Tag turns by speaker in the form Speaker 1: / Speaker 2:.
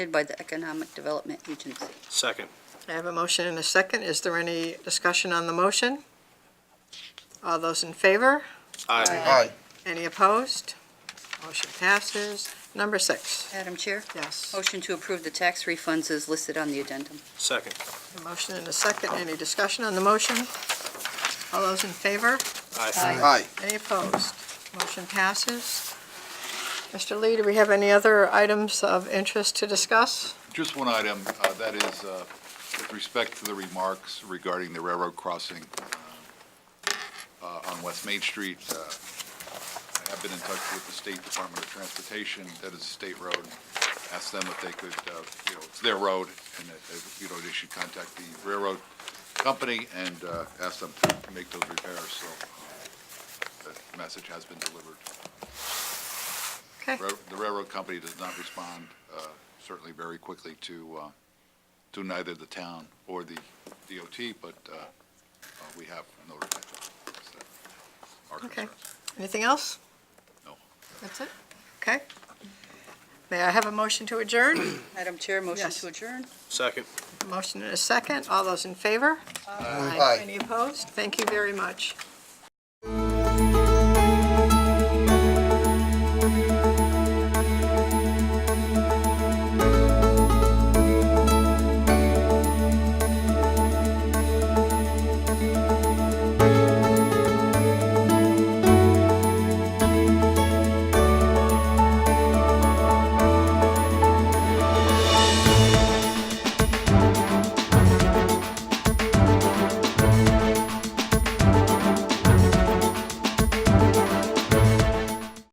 Speaker 1: by the Economic Development Agency.
Speaker 2: Second.
Speaker 3: I have a motion and a second. Is there any discussion on the motion? All those in favor?
Speaker 2: Aye.
Speaker 4: Aye.
Speaker 3: Any opposed? Motion passes. Number six,
Speaker 1: Madam Chair,
Speaker 3: yes.
Speaker 1: motion to approve the tax refunds is listed on the addendum.
Speaker 2: Second.
Speaker 3: A motion and a second. Any discussion on the motion? All those in favor?
Speaker 2: Aye.
Speaker 4: Aye.
Speaker 3: Any opposed? Motion passes. Mr. Lee, do we have any other items of interest to discuss?
Speaker 5: Just one item, uh, that is uh, with respect to the remarks regarding the railroad crossing uh, on West Main Street. uh, I have been in touch with the State Department of Transportation, that is a state road. Asked them if they could, uh, you know, it's their road, and that, they- you know, they should contact the railroad company and uh, ask them to make those repairs, so uh, that message has been delivered.
Speaker 3: Okay,
Speaker 5: Rail- The railroad company does not respond uh, certainly very quickly to, uh, to neither the town or the DOT, but uh, uh, we have notified them. So, our
Speaker 3: Okay.
Speaker 5: concerns.
Speaker 3: anything else?
Speaker 5: No.
Speaker 3: That's it? Okay. May I have a motion to adjourn?
Speaker 1: Madam Chair, motion
Speaker 3: Yes.
Speaker 1: to adjourn.
Speaker 2: Second.
Speaker 3: Motion and a second. All those in favor?
Speaker 4: Aye.
Speaker 3: Any opposed? Thank you very much.